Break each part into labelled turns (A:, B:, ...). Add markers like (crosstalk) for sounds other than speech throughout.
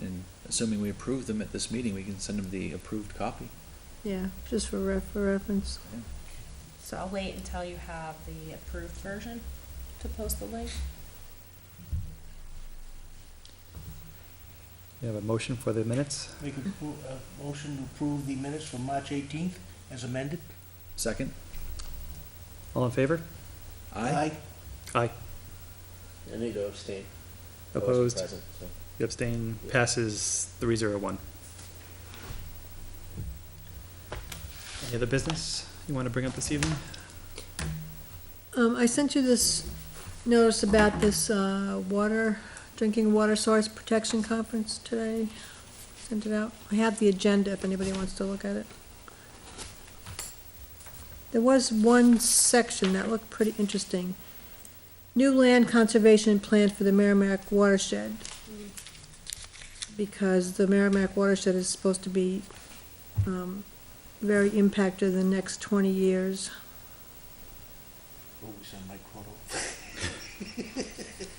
A: and assuming we approve them at this meeting, we can send them the approved copy.
B: Yeah, just for ref, for reference.
A: Yeah.
C: So I'll wait until you have the approved version to post the link.
D: We have a motion for the minutes.
E: Make a pro- a motion to approve the minutes from March 18th as amended.
A: Second?
D: All in favor?
A: Aye?
D: Aye.
F: I need to abstain. I wasn't
D: Opposed?
F: present, so.
D: The abstain passes three zero one. Any other business you want to bring up this evening?
B: Um, I sent you this notice about this, uh, water, drinking water source protection conference today. Sent it out. I have the agenda if anybody wants to look at it. There was one section that looked pretty interesting. New land conservation plan for the Merrimack watershed.
C: Mm,
B: Because the Merrimack watershed is supposed to be, um, very impacted in the next twenty years.
E: Oh, we sent Mike Croto.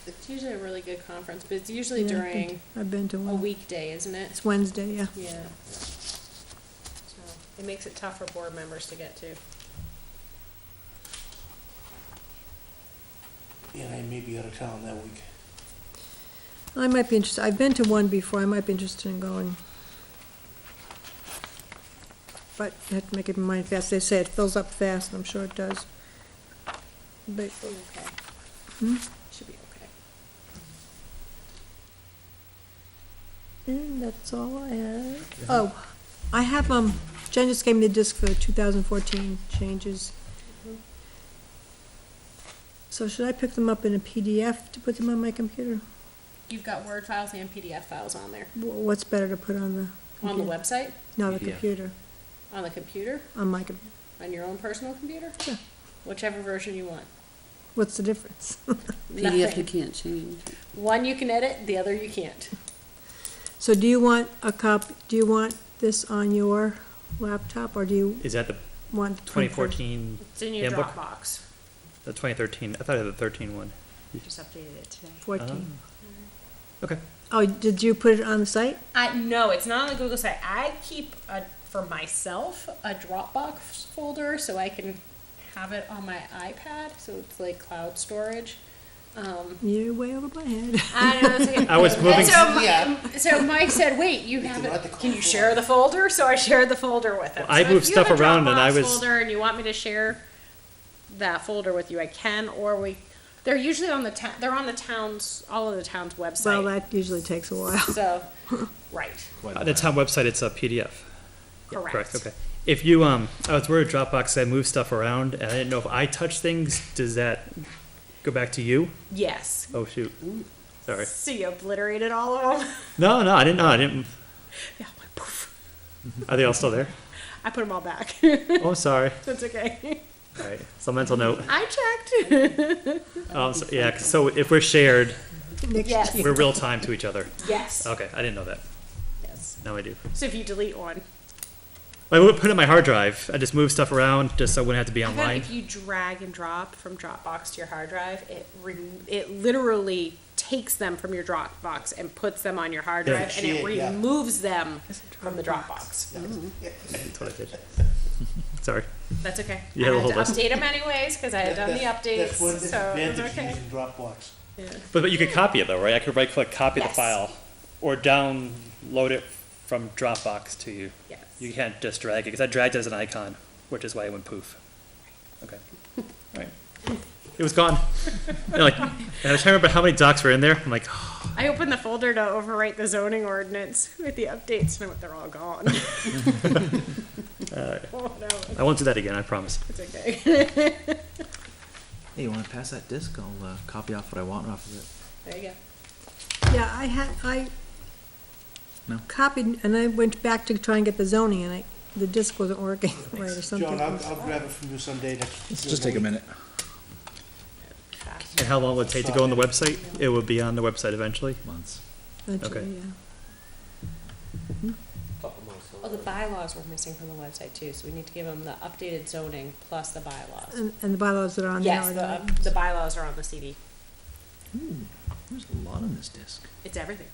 C: It's usually a really good conference, but it's usually
B: Yeah, I've been
C: during
B: to- I've been to
C: a
B: one.
C: weekday, isn't it?
B: It's Wednesday, yeah.
C: Yeah. So It makes it tough for board members to get to.
E: And I may be out of town that week.
B: I might be interested, I've been to one before, I might be interested in going. But you have to make it in mind fast, they say it fills up fast, and I'm sure it does. But,
C: Should be okay.
B: hmm?
C: Should be okay.
B: And that's all I have. Oh, I have, um, Jen just gave me the disc for two thousand fourteen changes.
C: Mhm.
B: So should I pick them up in a PDF to put them on my computer?
C: You've got Word files and PDF files on there.
B: Wh- What's better to put on the?
C: On the
B: computer?
C: website,
B: No, the
A: PDF.
B: computer,
C: on the computer,
B: on my computer.
C: on your own personal computer,
B: Yeah.
C: whichever version you want.
B: What's the difference?
G: PDF you
C: Nothing.
G: can't change.
C: One you can edit, the other you can't.
B: So do you want a copy, do you want this on your laptop, or do you
D: Is that the
B: want? the
D: twenty
B: print version?
D: fourteen,
C: It's in your
D: Handbook?
C: Dropbox.
D: the twenty thirteen? I thought I had the thirteen one.
G: Just updated it today.
D: Uh-huh.
B: Fourteen.
D: Ah. Okay.
B: Oh, did you put it on the site?
C: I no, it's not on the Google site. I keep a, for myself a Dropbox folder so I can have it on my iPad. So it's like cloud storage. Um,
B: You're way over my head. (laughs)
C: I don't know. it's like-
D: (laughs)
C: (laughs)
D: I was moving-
C: And So, Mi-
E: Yeah.
C: so Mike said, "Wait, you have
E: not the
C: it? Can you
E: cloud
C: share the folder?" So I shared the folder with him.
D: Well, I
C: So
D: moved
C: if you have
D: stuff
C: a
D: around and I
C: Dropbox
D: was-
C: Folder, and you want me to share that folder with you? I can, or we. They're usually on the town. they're on the town's all of the town's website.
B: Well, that usually takes a while.
C: so, right,
A: Quite a
D: Uh, The
A: lot.
D: town website, it's a PDF. Yeah,
C: correct.
D: Okay. If you, um, I was worried Dropbox, I moved stuff around and I didn't know if I touched things, does that go back to you?
C: Yes,
D: Oh, shoot. Sorry.
C: So you obliterated all of them? (laughs)
D: No, no, I didn't know. I didn't.
C: Yeah, I'm like, poof.
D: Are they all still there?
C: I put them all back. (laughs)
D: Oh, sorry.
C: That's okay.
D: All right. It's a mental note.
C: I
E: (laughs)
C: checked.
D: Um, so, yeah, 'cause- so if we're shared,
B: Next
C: Yes.
B: year.
D: we're real time to each other.
C: yes.
D: Okay, I didn't know that.
C: Yes.
D: Now I do.
C: So if you delete one,
D: I would put it in my hard drive. I just move stuff around just so I wouldn't have to be
C: I found
D: online.
C: if you drag and drop from Dropbox to your hard drive, it re- it literally takes them from your Dropbox and puts them on your hard
D: Yeah.
C: drive, and it
E: Shit, yeah.
C: removes them from the Dropbox.
D: That's what I did. (laughs) Sorry.
C: That's okay.
D: You
C: I
D: had a
C: had
D: whole
C: to
D: list.
C: update them anyways because I had done the
E: That's-
C: updates,
E: That's one of the
C: so it was
E: advantages
C: okay.
E: using Dropbox.
D: But, but you could copy it though, right? I could right click copy
C: Yes.
D: the file or download it from Dropbox to you.
C: Yes.
D: You can't just drag it because I dragged it as an icon, which is why it went poof. Okay. All right. It was gone. And, like, and I was trying to remember how many docs were in there. I'm like,
C: I opened the folder to overwrite the zoning ordinance with the updates, and they're all
D: (laughs)
C: gone. oh no,
D: I won't do that again, I promise.
C: it's okay.
A: Hey, you wanna pass that disc? I'll, uh, copy off what I want off of it.
C: There you go.
B: Yeah, I had, I
A: No.
B: copied, and I went back to try and get the zoning, and I, the disc wasn't working (laughs) right or
E: John, I'll,
B: something.
E: I'll grab it from you someday next.
A: Let's just take a minute.
D: And how long will it take to go on the website? It will be on the website eventually.
A: Months.
B: Eventually,
D: Okay.
B: yeah.
F: Couple months.
C: Well, Oh, the bylaws were missing from the website too, so we need to give them the updated zoning plus the bylaws.
B: And, and the bylaws that are on there.
C: Yes,
B: are
C: the,
B: not-
C: the bylaws are on the CD.
A: Ooh, there's a lot on this disc.
C: It's everything.